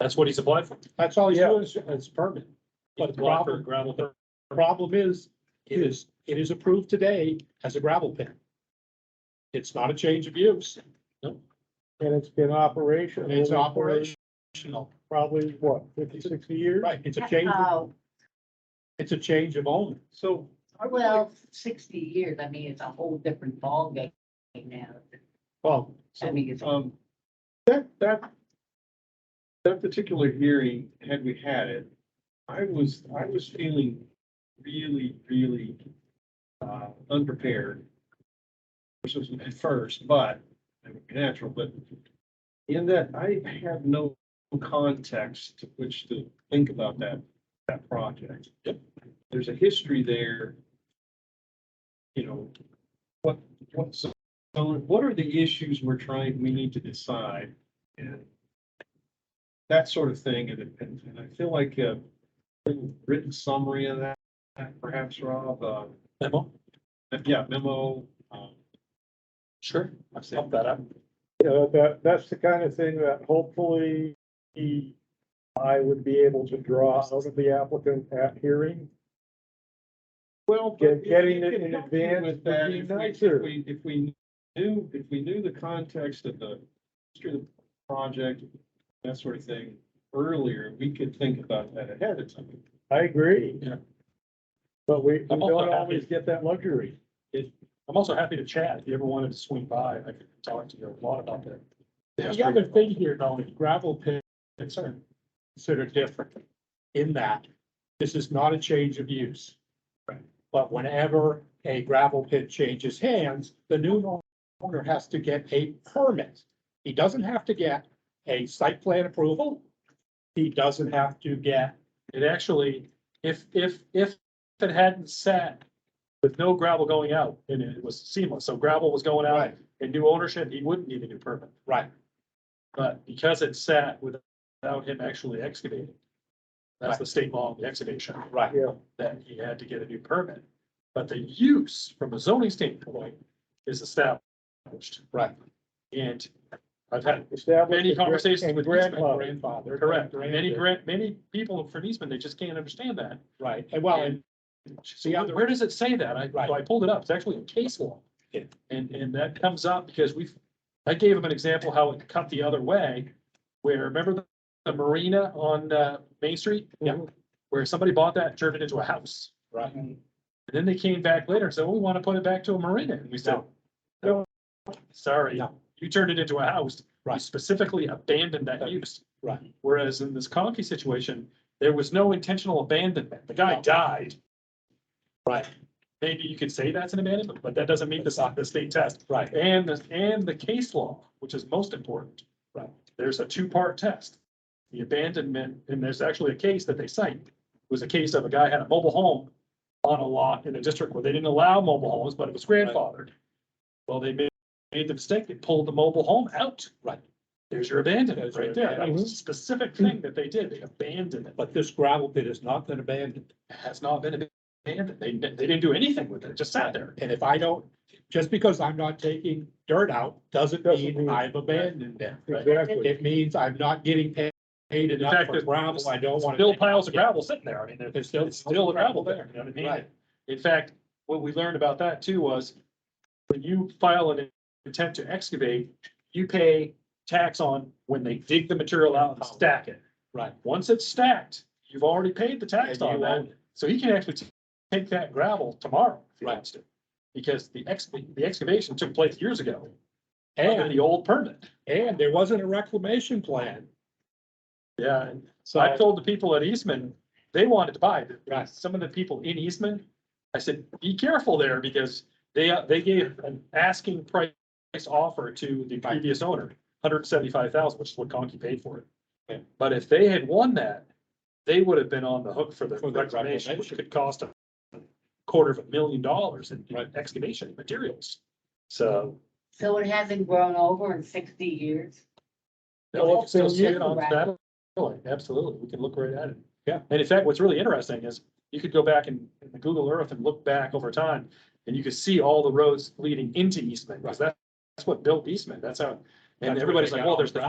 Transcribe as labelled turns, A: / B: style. A: That's what he's applied for.
B: That's all he's
C: Yeah.
B: doing is, is permit.
A: He's
B: But the
A: applied for
B: problem,
A: a gravel pit.
B: the problem is, it is, it is approved today as a gravel pit. It's not a change of use,
C: And it's been operation.
B: it's
C: over
B: operational,
C: Probably, what, fifty, sixty years?
B: right, it's a change, of-
D: Oh,
B: it's a change of owner.
C: So
D: well, sixty years, I mean, it's a whole different ballgame now.
B: Well,
D: I mean, it's,
C: Um, that, that, that particular hearing, had we had it, I was, I was feeling really, really, uh, unprepared. Which was at first, but, it would be natural, but in that I had no context to which to think about that, that project.
A: Yep.
C: There's a history there. You know, what, what's so what are the issues we're trying, we need to decide? And that sort of thing, and, and and I feel like a little written summary of that, perhaps, Rob, uh,
A: Memo?
C: yeah, memo. um,
A: Sure. I've set that up.
E: you know, that, that's the kind of thing that hopefully he, I would be able to draw out of the applicant at hearing.
C: Well.
E: Get-
C: but
E: getting it
C: if you
E: in
C: could help me
E: advance
C: with
E: would
C: that, if we- if
E: be nicer.
C: we- If we knew, if we knew the context of the, history of the project, that sort of thing, earlier, we could think about that ahead of time.
E: I agree.
A: Yeah.
E: But we, we
A: I'm
E: don't
A: also happy.
E: always get that luxury.
A: I'm also happy to chat. If you ever wanted to swing by, I could talk to you a lot about that.
B: the other thing here though, is gravel pits are considered different in that this is not a change of use.
A: Right.
B: But whenever a gravel pit changes hands, the new owner has to get a permit. He doesn't have to get a site plan approval. He doesn't have to get
A: It actually, if, if, if it hadn't sat with no gravel going out and it was seamless, so gravel was going out
B: Right.
A: and new ownership, he wouldn't need a new permit.
B: Right.
A: But because it sat without him actually excavating, that's the state law of the excavation.
B: Right.
E: Yeah.
A: That he had to get a new permit. But the use from a zoning standpoint is established.
B: Right.
A: And I've had
E: Establish
A: many
E: the gra-
A: conversations
E: and
A: with
E: grandfather.
B: grandfather.
A: Correct. Many grant, many people from Eastman, they just can't understand that.
B: Right, and well, and
A: See, I- where does it say that? I, so I pulled it up. It's actually in case law.
B: Yeah.
A: And, and that comes up because we've, I gave them an example how it cut the other way. Where, remember the- the marina on, uh, Main Street?
B: Yeah.
A: Where somebody bought that, and turned it into a house.
B: Right.
A: And then they came back later and said, "Well, we want to put it back to a marina. And we said,
E: No.
A: Sorry,
B: No.
A: you turned it into a house. You
B: Right.
A: specifically abandoned that use.
B: Right.
A: Whereas in this Conkey situation, there was no intentional abandonment. The guy
B: No.
A: died.
B: Right.
A: Maybe you could say that's an abandonment, but that doesn't meet the, the state test.
B: right,
A: And, the- and the case law, which is most important.
B: Right.
A: There's a two-part test. The abandonment, and there's actually a case that they cite, was a case of a guy had a mobile home on a lot in a district where they didn't allow mobile homes, but it was grandfathered. Well, they made, made the mistake, they pulled the mobile home out.
B: Right.
A: There's your abandonment
B: There's your
A: right there. That was a
E: abandonment.
A: specific thing that they did. They abandoned it, but
B: but this gravel pit has not been abandoned.
A: it has not been abandoned. They, they didn't do anything with it. It just sat there.
B: And if I don't, just because I'm not taking dirt out, doesn't
E: Doesn't
B: mean
E: mean-
B: I've abandoned them.
E: Exactly.
B: It means I'm not getting pa- paid
A: In
B: enough
A: fact,
B: for
A: there's
B: gravel I don't want to.
A: Still piles of gravel sitting there. I mean, there-
B: There's
A: there's
B: still-
A: still, it's still gravel there, you know what I mean?
B: Right.
A: In fact, what we learned about that too was when you file an intent to excavate, you pay tax on when they dig the material out and stack it.
B: Right.
A: Once it's stacked, you've already paid the tax
B: And you
A: on that.
B: own it.
A: So he can actually t- take that gravel tomorrow if he
B: Right.
A: wants to. Because the ex, the excavation took place years ago under the old permit.
B: And there wasn't a reclamation plan,
A: Yeah, and
B: so.
A: I told the people at Eastman, they wanted to buy, it.
B: Right.
A: some of the people in Eastman, I said, be careful there because they, uh, they gave an asking price offer to the previous owner, hundred seventy-five thousand, which is what Conkey paid for
B: Yeah.
A: it. But if they had won that, they would have been on the hook for the
B: For the
A: reclamation, which
B: reclamation.
A: could cost a quarter of a million dollars in in
B: Right.
A: excavation materials. So.
D: so it hasn't grown over in sixty years.
A: No, we can
D: Also,
A: still see it
D: yeah,
A: on
D: right.
A: satellite, absolutely, we can look right at it.
B: Yeah.
A: And in fact, what's really interesting is you could go back and in the Google Earth and look back over time, and you could see all the roads leading into Eastman, because that's what built Eastman, that's how.
B: That's
A: And
B: where
A: everybody's
B: they
A: like,
B: got
A: well,
B: all
A: there's
B: the
A: the